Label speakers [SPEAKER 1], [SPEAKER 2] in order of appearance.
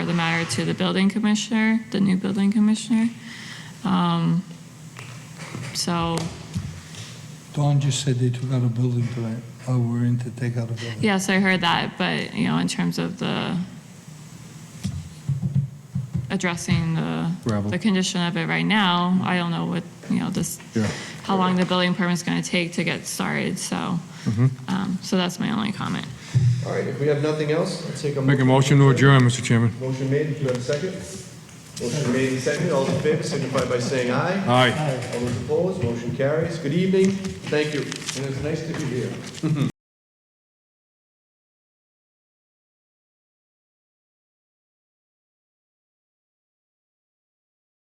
[SPEAKER 1] the matter to the building commissioner, the new building commissioner. Um, So,
[SPEAKER 2] Dawn just said they took out a building tonight. Oh, we're in to take out a building.
[SPEAKER 1] yes, I heard that, but, you know, in terms of the addressing the,
[SPEAKER 3] Gravel.
[SPEAKER 1] the condition of it right now, I don't know what, you know, this,
[SPEAKER 3] Yeah.
[SPEAKER 1] how long the building permit's gonna take to get started, so,
[SPEAKER 3] Mm-hmm.
[SPEAKER 1] um, so that's my only comment.
[SPEAKER 4] All right, if we have nothing else, I'll take a.
[SPEAKER 3] Make a motion to adjourn, Mr. Chairman.
[SPEAKER 4] Motion made, if you have a second. Motion made and seconded, all those in favor signify by saying aye.
[SPEAKER 3] Aye.
[SPEAKER 4] All those opposed, motion carries. Good evening, thank you, and it's nice to be here.